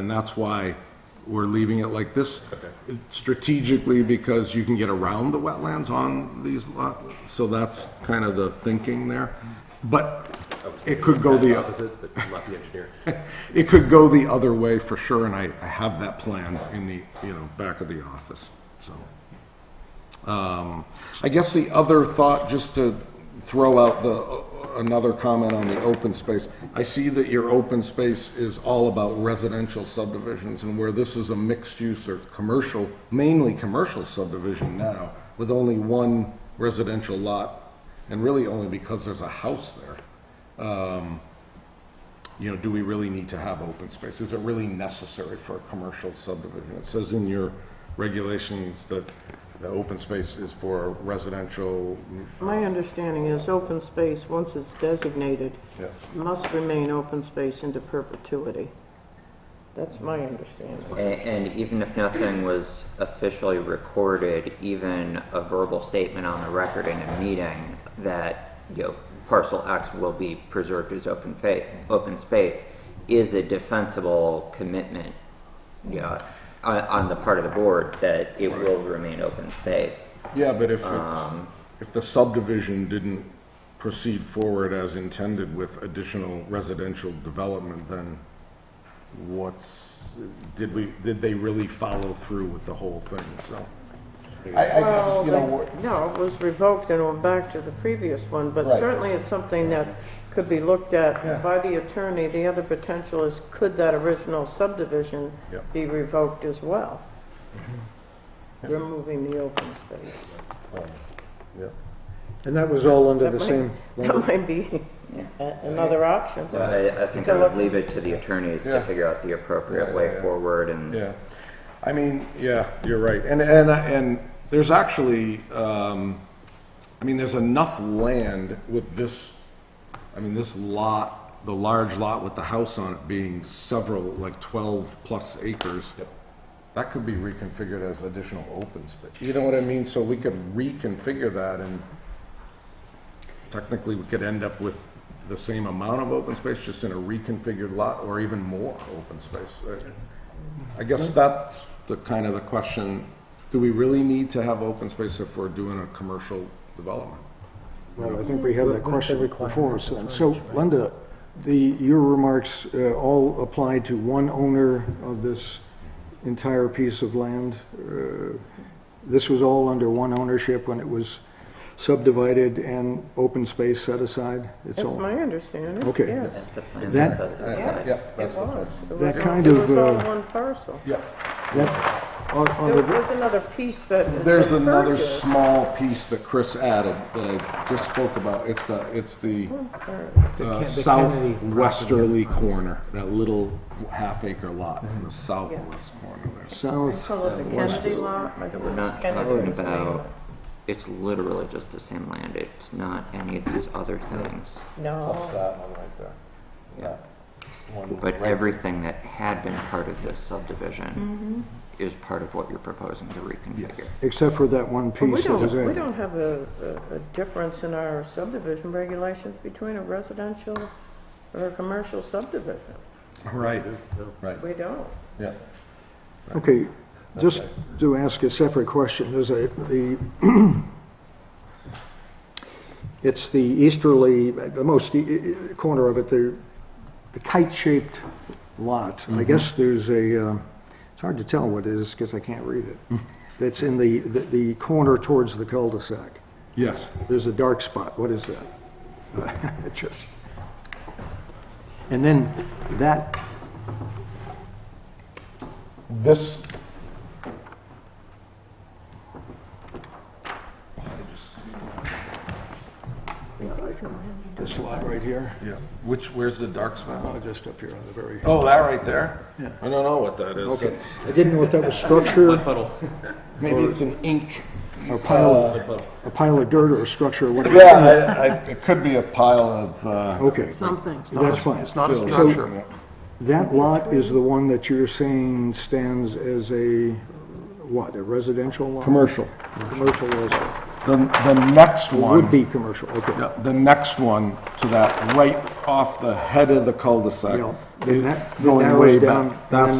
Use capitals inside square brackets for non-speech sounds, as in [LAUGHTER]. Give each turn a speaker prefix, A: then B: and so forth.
A: And that's why we're leaving it like this strategically, because you can get around the wetlands on these lot. So that's kind of the thinking there. But it could go the,
B: Opposite, but I'm not the engineer.
A: [LAUGHS] it could go the other way for sure, and I, I have that plan in the, you know, back of the office, so. Um, I guess the other thought, just to throw out the, another comment on the open space, I see that your open space is all about residential subdivisions, and where this is a mixed-use or commercial, mainly commercial subdivision now, with only one residential lot, and really only because there's a house there you know, do we really need to have open space? Is it really necessary for a commercial subdivision? It says in your regulations that the open space is for residential.
C: My understanding is open space, once it's designated,
A: Yeah.
C: must remain open space into perpetuity. That's my understanding.
D: A- And even if nothing was officially recorded, even a verbal statement on the record in a meeting that, you know, parcel X will be preserved as open fa, open space is a defensible commitment, you know, on, on the part of the board that it will remain open space.
A: Yeah, but if it's, if the subdivision didn't proceed forward as intended with additional residential development, then what's, did we, did they really follow through with the whole thing, so? I, I guess, you know,
C: Well,
A: we're-
C: but- No, it was revoked and went back to the previous one, but
A: Right.
C: certainly it's something that could be looked
A: Yeah.
C: at by the attorney. The other potential is, could that original subdivision
A: Yep.
C: be revoked as well? Removing the open space.
E: And that was all under
C: That
E: the
C: might-
E: same,
C: That might be [LAUGHS] a- another option.
D: So I, I think I would leave it to the attorneys
A: Yeah.
D: to figure out the appropriate
A: Yeah, yeah,
D: way
A: yeah.
D: forward and.
A: Yeah, I mean, yeah, you're right, and, and, and there's actually, um, I mean, there's enough land with this, I mean, this lot, the large lot with the house on it being several, like twelve-plus acres. That could be reconfigured as additional open space, you know what I mean, so we could reconfigure that and technically we could end up with the same amount of open space, just in a reconfigured lot, or even more open space. Uh, I guess that's the kind of the question, do we really need to have open space if we're doing a commercial development?
E: well, I think we have that question before us then. So Linda, the, your remarks uh, all apply to one owner of this entire piece of land? Uh, This was all under one ownership when it was subdivided and open space set aside? It's
C: That's
E: all-
C: my understanding,
E: Okay.
C: yes.
D: The plan
E: That-
D: sets it
C: Yeah.
D: aside.
A: Yeah,
C: It
A: that's the
C: was.
A: question.
C: It
E: That
C: was-
E: kind
C: It
E: of,
C: was all
E: uh,
C: one parcel.
A: Yeah,
E: That- on- on
C: There
E: the-
C: was another piece that has
A: there's
C: been
A: another
C: purchased.
A: small piece that Chris added that I just spoke about, it's the, it's the uh, southwesterly corner, that little half acre lot in the southwest corner there.
E: South,
C: Call it the Kennedy lot. I think
D: We're not
C: it's Kennedy's
D: talking
C: name.
D: about, it's literally just the same land, it's not any of these other things.
C: No,
A: that one right there.
D: Yeah. But everything that had been part of this subdivision is part of what you're proposing to reconfigure.
E: except for that one
C: But we
E: piece that was
C: don't, we
E: added.
C: don't have a, a- a difference in our subdivision regulations between a residential or a commercial subdivision.
A: Right, right,
C: We don't.
A: yeah.
E: Okay, just to ask a separate question, there's a, the, [CLEARS THROAT] it's the easterly, the most e- e- corner of it, the, the kite-shaped lot. I guess there's a, uh, it's hard to tell what it is because I can't read it. That's in the, the- the corner towards the cul-de-sac.
A: Yes,
E: There's a dark spot, what is that? It [LAUGHS] just, and then that,
A: this.
E: this lot right here,
A: Yeah, which, where's the dark spot?
E: oh, just up here on the very
A: Oh, that right there? Yeah. I don't know what that is. It's-
E: I didn't know if that was structure
A: Maybe it's an ink.
E: or pile of, a pile of dirt or a structure or whatever.
A: it could be a pile of, uh,
E: Okay,
C: Something.
E: that's fine.
F: It's not a
E: So-
F: structure.
E: That lot is the one that you're saying stands as a, what, a residential lot?
A: Commercial.
E: Commercial residential.
A: The, the next one.
E: Would be commercial, okay.
A: Yeah, The next one to that, right off the head of the
E: Yeah.
A: cul-de-sac.
E: Then that- that
A: Going
E: narrows
A: way
E: down,
A: back.
E: and
A: That's